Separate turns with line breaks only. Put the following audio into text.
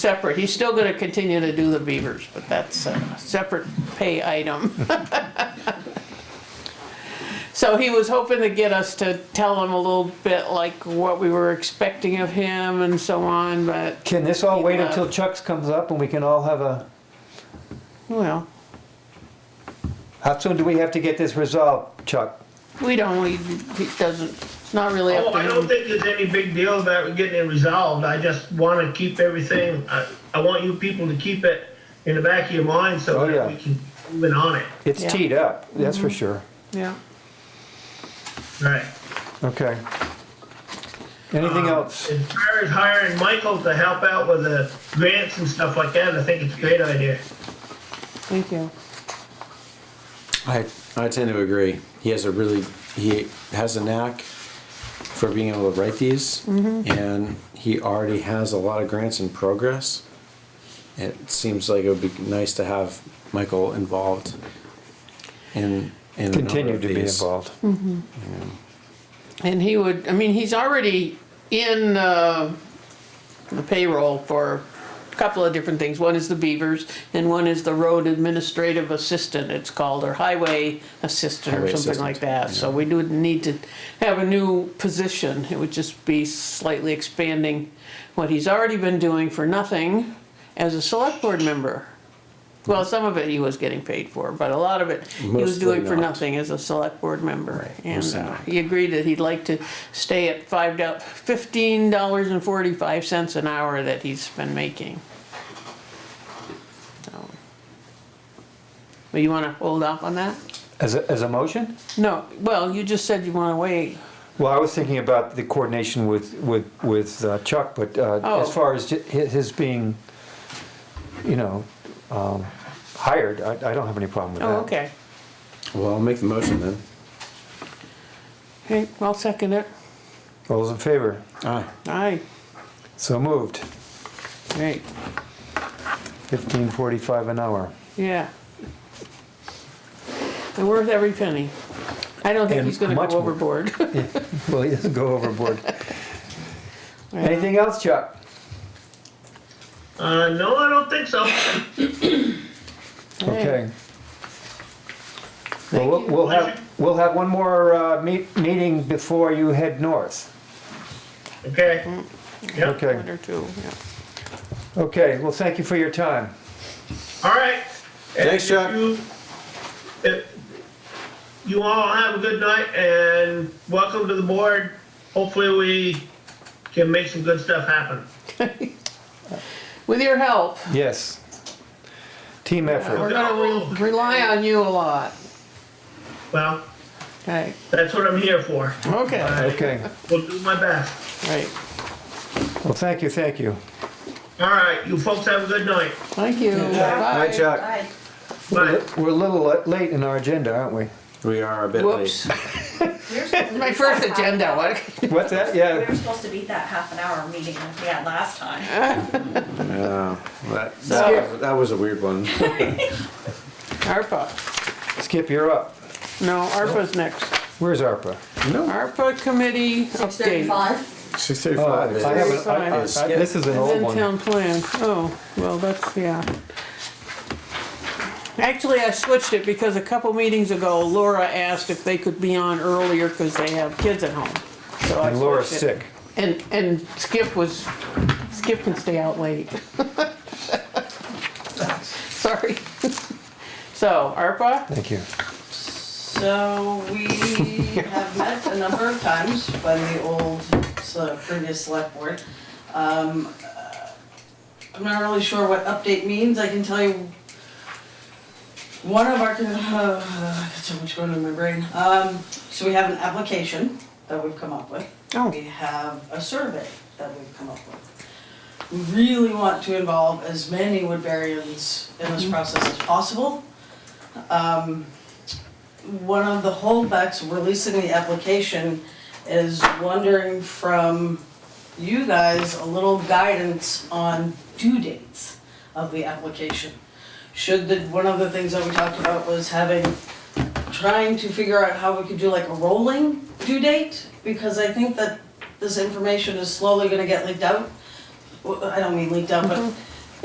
separate. He's still gonna continue to do the beavers, but that's a separate pay item. So he was hoping to get us to tell him a little bit like what we were expecting of him and so on, but,
Can this all wait until Chuck's comes up and we can all have a,
well,
how soon do we have to get this resolved, Chuck?
we don't, we, he doesn't, it's not really
Oh,
up
I
to
don't
him.
think there's any big deal about getting it resolved. I just want to keep everything, I, I want you people to keep it in the back of your mind
Oh,
so
yeah.
that we can move it on it.
It's
Yeah. Mm-hmm.
teed up, that's for sure.
Yeah.
Right.
Okay. Anything else?
As far as hiring Michael to help out with the grants and stuff like that, I think it's a great idea.
Thank you.
I, I tend to agree. He has a really, he has a knack for being able to write these, and he already has a lot of grants in progress. It seems like it would be nice to have Michael involved in, in a number
Continue
of
to be
these.
involved.
Hmm. And he would, I mean, he's already in uh, the payroll for a couple of different things. One is the Beavers and one is the Road Administrative Assistant, it's called, or Highway Assistant or
Highway
something like that.
assistant,
So we do need to have a new position. It would just be slightly expanding what he's already been doing for nothing as a select board member. Well, some of it he was getting paid for, but a lot of it he was
Mm-hmm. Mostly
doing for
not.
nothing as a select board member.
Right,
And
mostly
uh,
not.
he agreed that he'd like to stay at five dol- fifteen dollars and forty-five cents an hour that he's been making. So. But you wanna hold off on that?
As a, as a motion?
No, well, you just said you wanna wait.
Well, I was thinking about the coordination with, with, with uh, Chuck, but uh,
Oh.
as far as ju- hi- his being, you know, um, hired, I, I don't have any problem with that.
Oh, okay.
Well, I'll make the motion then.
Okay, I'll second it.
All those in favor?
Aye.
Aye,
So moved.
great,
Fifteen forty-five an hour.
yeah. And worth every penny. I don't think
And
he's gonna
much
go
more.
overboard.
Well, he doesn't go overboard. Anything else, Chuck?
Uh, no, I don't think so.
Okay. Well,
Thank
we'll,
you.
we'll have, we'll have one more, uh, meet, meeting before you head north.
Okay. Yep.
Okay,
One or two, yeah.
okay, well, thank you for your time.
All right. And if
Thanks, Chuck.
you- if- You all have a good night and welcome to the board. Hopefully we can make some good stuff happen.
With your help,
Yes. Team
we're
effort.
gonna re- rely on you a lot.
Well,
Okay,
that's what I'm here for.
okay,
Okay,
Will do my best.
right,
well, thank you, thank you.
All right, you folks have a good night.
thank you.
Hi,
Bye.
Chuck.
Right.
Bye.
We're a little li- late in our agenda, aren't we?
We are a bit
Whoops,
late.
We're supposed to
my
beat
first
that half-
agenda, what?
What's that?
We
Yeah,
were supposed to beat that half an hour meeting we had last time.
Yeah, that, that was, that was a weird one.
ARPA,
Skip, you're up.
no, ARPA's next.
Where's ARPA?
No,
ARPA committee update.
six
Oh, I
thirty-five.
haven't, I- I- I-
Skip.
this is an
And
old
then
one.
town plan, oh, well, that's, yeah. Actually, I switched it because a couple meetings ago Laura asked if they could be on earlier because they have kids at home. So I
And Laura's
switched it.
sick.
And, and Skip was, Skip can stay out late. Sorry. So, ARPA,
Thank you.
So we have met a number of times when the old, so previous select board. Um, uh, I'm not really sure what update means, I can tell you one of our, uh, I got so much going on in my brain. Um, so we have an application that we've come up with.
Oh.
We have a survey that we've come up with. We really want to involve as many Woodburyans in this process as possible. Um, one of the holdbacks releasing the application is wondering from you guys a little guidance on due dates of the application. Should the, one of the things that we talked about was having, trying to figure out how we could do like a rolling due date, because I think that this information is slowly gonna get leaked out. Well, I don't mean leaked out, but